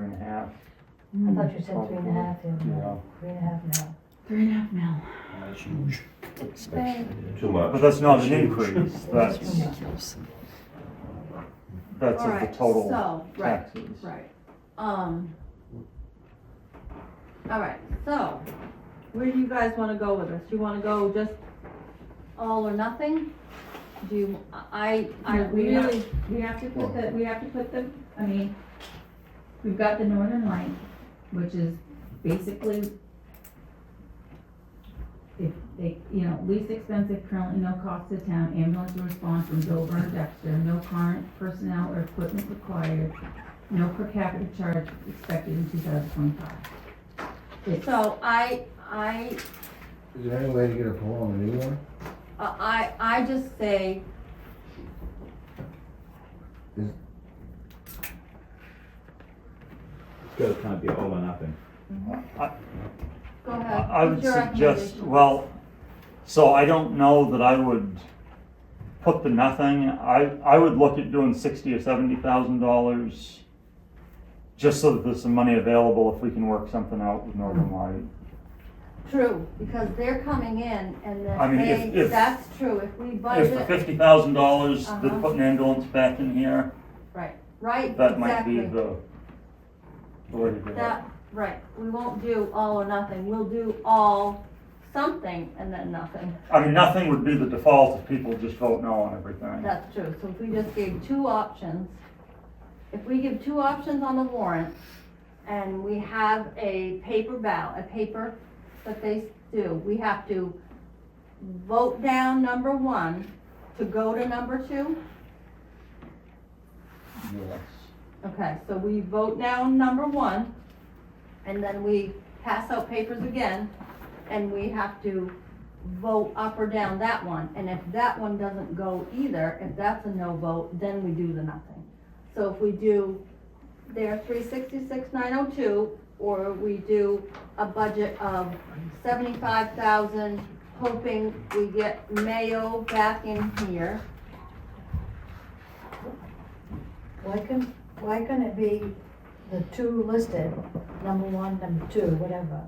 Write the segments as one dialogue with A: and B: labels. A: half.
B: I thought
C: Mm.
B: you said three and a half,
A: Yeah.
B: yeah, three and a half now.
D: Three and a half mil.
E: That's huge.
D: It's
E: That's
D: bad.
E: too
A: But
E: much.
A: that's not an
E: Huge.
A: increase, that's,
D: Ridiculous.
A: that's
C: All
A: of the
C: right,
A: total
C: So, right,
A: taxes.
C: right, um. All right, so, where do you guys wanna go with this? You wanna go just all or nothing? Do you, I, I
F: No, we have-
C: really,
F: We have to put the, we have to put the, I mean, we've got the Northern Light, which is basically if they, you know, least expensive, currently no cost to town, ambulance will respond from Dover and Dexter, no current personnel or equipment required, no per capita charge expected in two thousand twenty-five. It's,
C: so I, I,
G: Is there any way to get a pull on the new one?
C: I, I just say,
E: It's gotta kind of be all or nothing.
C: go ahead.
A: I I would
C: What's your
A: suggest,
C: recommendation?
A: well, so I don't know that I would put the nothing, I, I would look at doing sixty or seventy thousand dollars just so that there's some money available if we can work something out with Northern Light.
C: True, because they're coming in and
A: I mean,
C: then
A: if-
C: they,
A: if-
C: that's true, if we
A: If the
C: budget,
A: fifty thousand dollars, they're
C: Uh-huh.
A: putting ambulance back in here,
C: right, exactly.
A: that might be the the way to do it.
C: That, right, we won't do all or nothing, we'll do all, something, and then nothing,
A: I mean, nothing would be the default if people just vote no on everything.
C: that's true, so if we just gave two options, if we give two options on the warrant, and we have a paper ballot, a paper that they do, we have to vote down number one to go to number two?
A: Yes.
C: Okay, so we vote down number one, and then we pass out papers again, and we have to vote up or down that one, and if that one doesn't go either, if that's a no vote, then we do the nothing. So if we do their three sixty-six nine oh two, or we do a budget of seventy-five thousand, hoping we get Mayo back in here,
B: Why couldn't, why couldn't it be the two listed, number one, number two, whatever?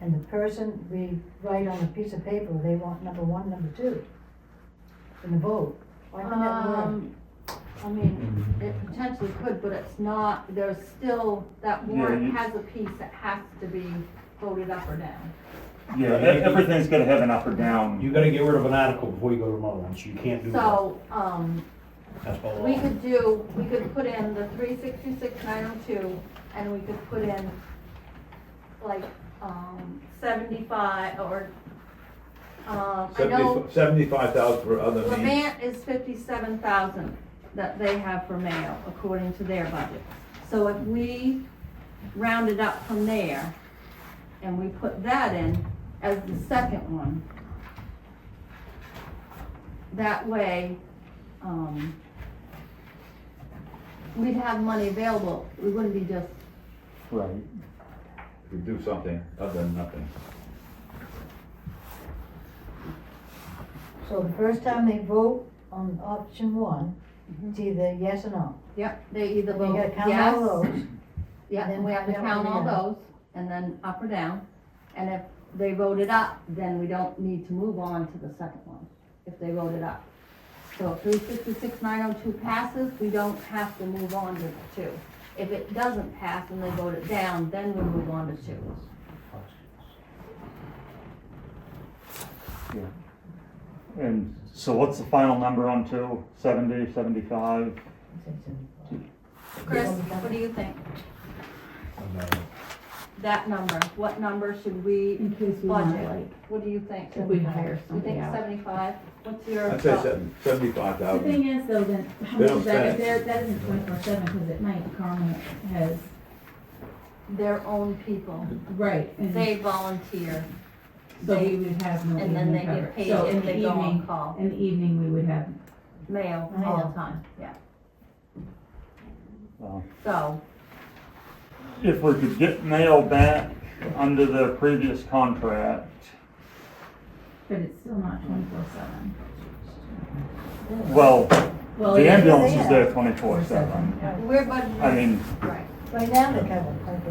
B: And the person we write on a piece of paper, they want number one, number two in the vote. Why couldn't that work?
C: Um, I mean, it potentially could, but it's not, there's still, that
A: Yeah,
C: warrant
A: you-
C: has a piece that has to be voted up or down.
A: Yeah, e- everything's gonna have an up or down.
E: You gotta get rid of an article before you go to another one, so you can't do that.
C: So, um,
E: That's by
C: we
E: law.
C: could do, we could put in the three sixty-six nine oh two, and we could put in like, um, seventy-five or, um, I know
H: Seventy-five thousand for other means.
C: Levant is fifty-seven thousand that they have for mail, according to their budget. So if we round it up from there, and we put that in as the second one, that way, um, we'd have money available, we wouldn't be just,
A: Right.
H: We do something other than nothing.
B: So the first time they vote on option one, it's either yes or no.
C: yep, they either
B: And you
C: Mm-hmm. vote
B: gotta count
C: yes.
B: all those.
C: Yeah,
B: And
C: then
B: then
C: we have to
B: find out
C: count all
B: what we have.
C: those, and then up or down, and if they vote it up, then we don't need to move on to the second one, if they vote it up. So if three sixty-six nine oh two passes, we don't have to move on to the two. If it doesn't pass and they vote it down, then we move on to two.
A: And so what's the final number on two? Seventy, seventy-five?
C: Chris, what do you think? That number, what number should we,
F: in case we want,
C: Budget.
F: like,
C: what do you think?
F: if we hire
C: You think
F: somebody out.
C: seventy-five? What's your?
H: I'd say
C: thought?
H: seventy-five
F: The
H: thousand.
F: thing is though, then, how
H: They
F: much
H: don't
F: is that,
H: spend it.
F: that, that isn't twenty-four seven, cause at night Carmen has,
C: Their own people,
F: right, and
C: they volunteer.
F: so
C: they-
F: we would have no
C: And then
F: evening
C: they
F: cover.
C: get paid
F: So in
C: if
F: the
C: they go on
F: evening,
C: call,
F: in the evening, we would have
C: mail all the time, yeah.
A: Wow.
C: So,
A: If we could get mail back under the previous contract,
F: But it's still not twenty-four seven.
A: well, the ambulance is there twenty-four
F: Oh, Twenty-four
A: seven.
F: seven.
C: we're budgeting,
A: I mean,
C: right,
B: Right now, they cover, like I